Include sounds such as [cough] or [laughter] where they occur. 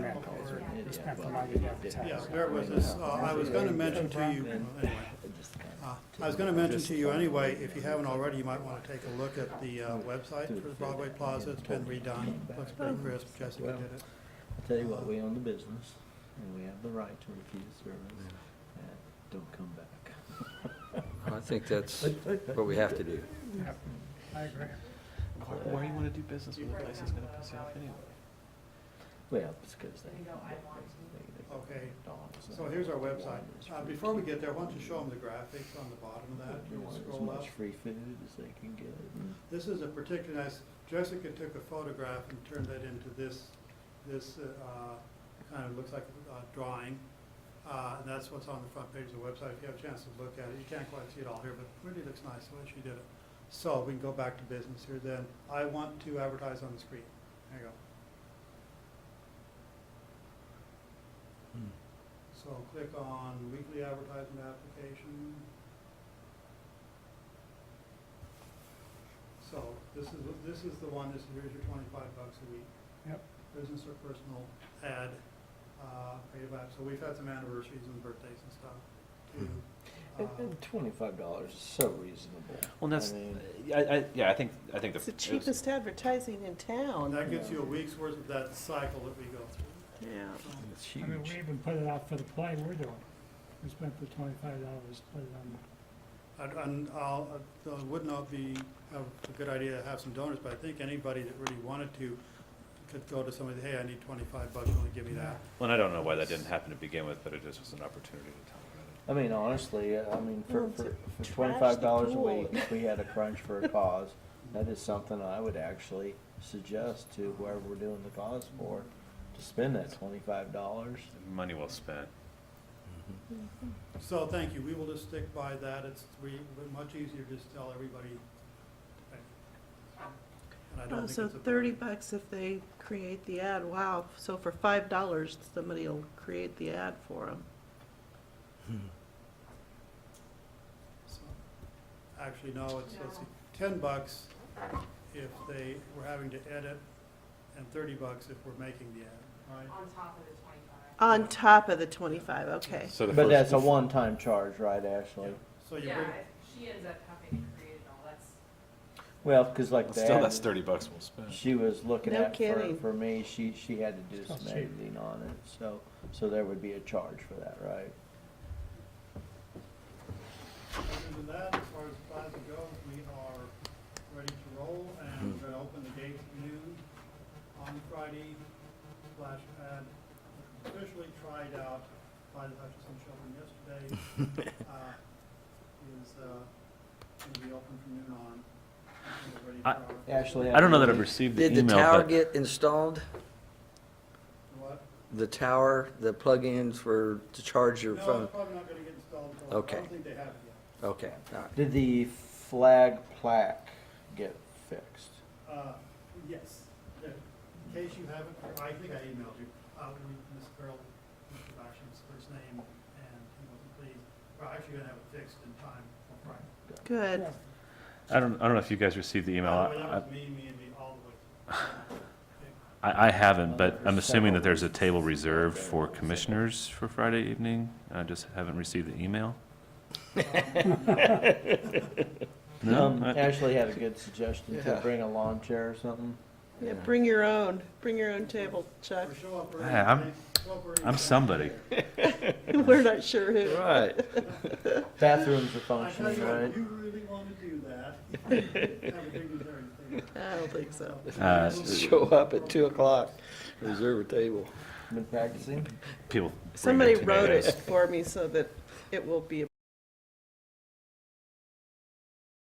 We spent the money to advertise. Yeah, there was this, uh, I was gonna mention to you, anyway, uh, I was gonna mention to you anyway, if you haven't already, you might wanna take a look at the uh, website for the Broadway Plaza, it's been redone, looks pretty crisp, Jessica did it. I'll tell you what, we own the business, and we have the right to refuse service, and don't come back. I think that's what we have to do. I agree. Why, why you wanna do business with a place that's gonna piss you off anyway? Well, it's because they, they, they, Okay, they dogs. and so here's our water website, is uh, free before we get there, food. why don't you show them the graphics on the bottom of that, you There's wanna As scroll up? Mm. much free food as they can get, and This is a particular, nice- Jessica took a photograph and turned that into this, this, uh, kind of looks like a drawing. Uh, and that's what's on the front page of the website, if you have a chance to look at it, you can't quite see it all here, but it really looks nice the way she did it. So we can go back to business here then, I want to advertise on the screen, there you go. So click on weekly advertisement application. So this is, this is the one, this, here's your twenty-five bucks a week. Yep. Business or personal ad, uh, creative app, so we've had some anniversaries and birthdays and stuff too. and, Uh, and twenty-five dollars is so reasonable. Well, I that's, mean, I, I, yeah, I think, I think. It's the it was- cheapest advertising in And town. that gets you a week's worth of that cycle that we go through. Yeah. It's I mean, we even put it out for the play we're doing. We spent the twenty-five dollars, put it on. And, and I'll, uh, it would not be a a good idea to have some donors, but I think anybody that really wanted to could go to somebody, hey, I need twenty-five bucks, you wanna give me that? Well, and I don't know why that didn't happen to begin with, but it just was an opportunity to talk about it. I mean, honestly, uh, I mean, for, Well, to for, trash for the twenty-five dollars a pool. week, if we had a crunch for [laughs] a cause, that is something I would actually suggest to whoever we're doing the cause for, to spend that twenty-five dollars. Money well spent. So, thank you, we will just stick by that, it's re, much easier to just tell everybody. And I don't Oh, think so it's a- thirty bucks if they create the ad, wow, so for five dollars, somebody will create the ad for them. so- Actually, no, it's, let's see, ten bucks if they were having to edit, and thirty bucks if we're making the ad, right? on top of the twenty-five. On top of the twenty-five, okay. So the But that's first, a one-time charge, right, Ashley? So you bring, Yeah, if she ends up having to create it all, that's, Well, cause like [laughs] still, that's that, thirty bucks well spent. she was looking No at, for, kidding. for me, she, she had to do It's not some cheap. editing on it, so, so there would be a charge for that, right? Other than that, as far as plaza goes, we are ready to roll Mm-hmm. and we're gonna open the gates at noon on Friday. Flash pad officially tried out by the Hutchinson Children yesterday, [laughs] uh, is, uh, gonna be open from noon on. until we're ready I- for our- Ashley, I don't know that I've received the Did the email, tower but get installed? What? The tower, the plug-ins for, to charge your No, phone? it's probably not gonna get installed until, I Okay. don't think they have it yet. Okay, all right. [laughs] Did the flag plaque get fixed? Uh, yes, The- in case you haven't, I think I emailed you, uh, we, Ms. Carol, Mr. Basham's first name, and he wasn't pleased. We're actually gonna have it fixed in time for Friday. Good. I don't, I don't know if you guys received the email. By the way, I- that was me, me and me, all the way. I, I haven't, but I'm There's assuming that several there's a table reasons. reserved for commissioners for Friday evening. I just haven't received the email. No, Um, I- Ashley had a good suggestion to Yeah. bring a lawn chair or something. Yeah, bring your own, bring your own table, Chuck. [laughs] Or show up early. Hey, I'm- thanks. Show up early. I'm somebody. We're not sure who. Right. Bathrooms are I tell functioning, you right? what, you really wanna do [laughs] that. Have a dignitary thing. I don't think so. Uh, Show up at two o'clock, reserve a table. Been practicing? People. bring their Somebody wrote it tomatoes. for me so that it will be